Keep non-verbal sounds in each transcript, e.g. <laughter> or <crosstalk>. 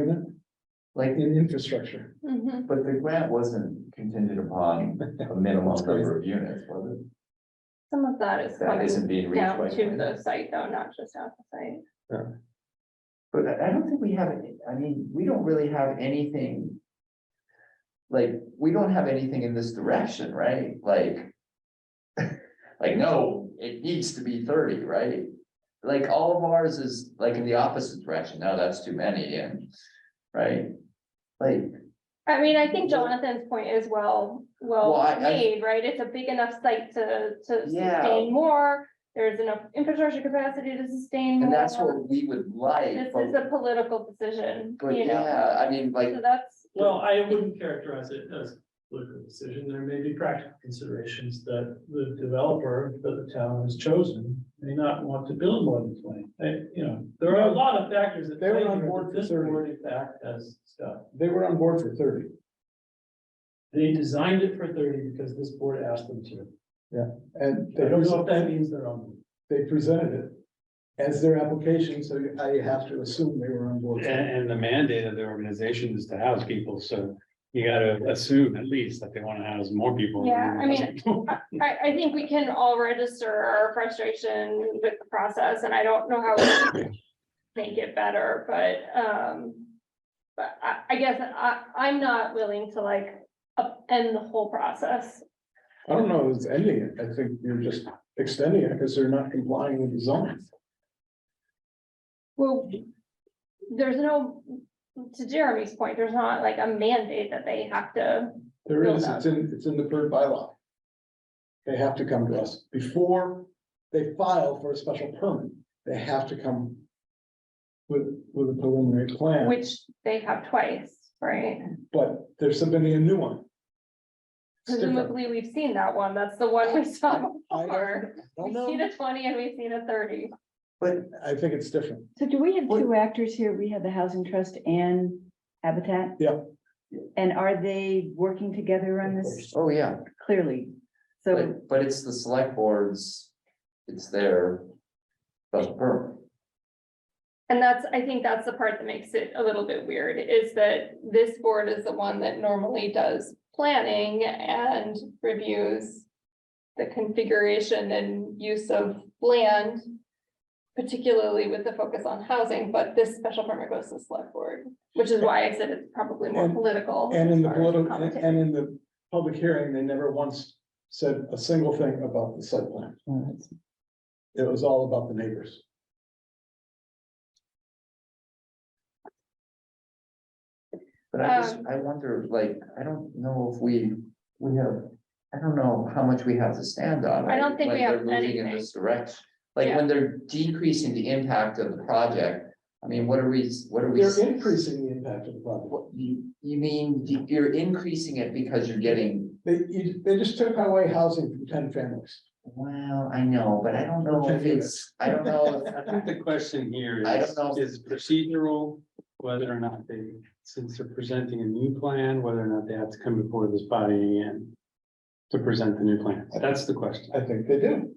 unit, like in infrastructure. Mhm. But the grant wasn't contingent upon a minimum number of units, was it? Some of that is That isn't coming being reached down by. to the grant. site though, not just out the site. But I I don't think we have, any- I mean, we don't really have anything. Like, we don't have anything in this direction, right? Like. <laughs> Like, no, it needs to be thirty, right? Like, all of ours is like in the opposite direction. No, that's too many and, right? Like, I mean, I think Jonathan's point is well, Mm-hmm. Well, I- well I- made, right? It's a big enough site to, to Yeah. sustain more. There's enough infrastructure capacity to sustain. and that's more. what we would like, This is but, a political decision, but you know, yeah, I mean, like, so that's. Well, I wouldn't characterize it as a political decision. There may be practical considerations that the developer that the town has chosen may not want to build more than twenty. They- you know, there are a lot of factors that. They were play on here board that for This 30. board in fact has stuff. They were on board for thirty. They designed it for thirty because this board asked them to. And I they, don't know if that pres- means they're on. they presented it as their application, so I have to assume they were on board. for it. And, and the mandate of the organization is to house people, so you gotta assume at least that they wanna house more people. than Yeah, I <laughs> mean- they- I, I think we can all register our frustration with the process, and I don't know how we <coughs> make it better, but, um, but I, I guess I, I'm not willing to like upend the whole process. I don't know, if it's ending it. I think you're just extending it because they're not complying with the zoning. Well, there's no, to Jeremy's point, there's not like a mandate that they have to, There Build is, up. it's in, it's in the third bylaw. They have to come to us before they file for a special permit. They have to come with, with a preliminary plan, which they have twice, right? but they're submitting a new one. It's different. Presumably, we've seen that one, that's the one we saw I don't- before. I We've don't seen know, a twenty and we've seen a thirty. but I think it's different. So do we have Well- two actors here? We have the Housing Trust and Habitat? Yeah. And are they working together on this oh, yeah. clearly? So, But, but it's the select boards, it's their special permit. And that's, I think that's the part that makes it a little bit weird, is that this board is the one that normally does planning and reviews. The configuration and use of land. Particularly with the focus on housing, but this special permit goes to the select board, which is why I said it's probably more And- political. And in the as far as political, and commentary. and in the public hearing, they never once said a single thing about the site plan. It was all about the neighbors. But I just, Um. I wonder, like, I don't know if we, we have, I don't know how much we have to stand on. I don't think when we have they're moving In anything. this direction, like, when they're decreasing the impact of the project, I mean, what are we, what are we? They're increasing the impact of the project. What, you, you mean, the- you're increasing it because you're getting, They, you- they just took away housing from ten families. well, I know, but I don't know if it's, I don't know. if- I think <laughs> the question here I don't is, know. is procedural, whether or not they, since they're presenting a new plan, whether or not they have to come before this body again to present the new plan. That's the question. I think they do.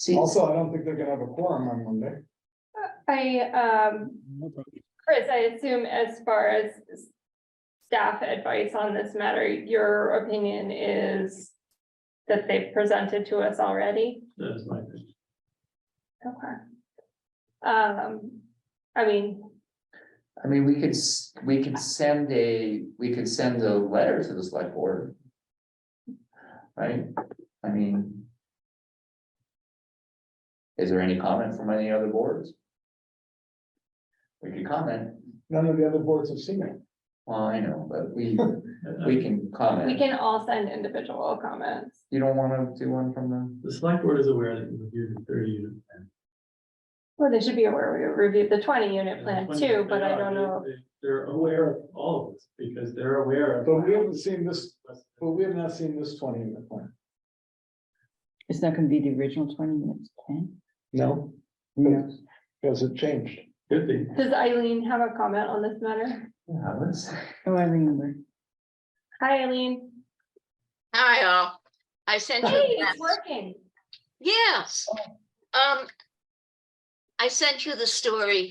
See, Also, I don't think they're gonna have a quorum on Monday. I, um, Chris, I assume as far as s- staff advice on this matter, your opinion is that they've presented to us already? That's my opinion. Okay. Um, I mean, I mean, we could, s- we could send a, we could send a letter to the select board. Right, I mean. Is there any comment from any other boards? We could comment, None of the other boards have seen it. well, I know, but we, we can we comment, can all send individual comments. you don't wanna do one from them? The select board is aware that you reviewed the thirty unit plan. Well, they should be aware we reviewed the twenty unit plan When too, they but I are, don't they- know. they- They're aware of all of this because they're aware of. But we haven't seen this, but we have not seen this twenty in the plan. it's not gonna be the original twenty minutes plan? No. No, because it changed. Could be. Does Eileen have a comment on this matter? Yeah, let's, Oh, I remember. Hi, Eileen. Hi, all. I sent Hey, you, it's working. yes. Um, I sent you the story.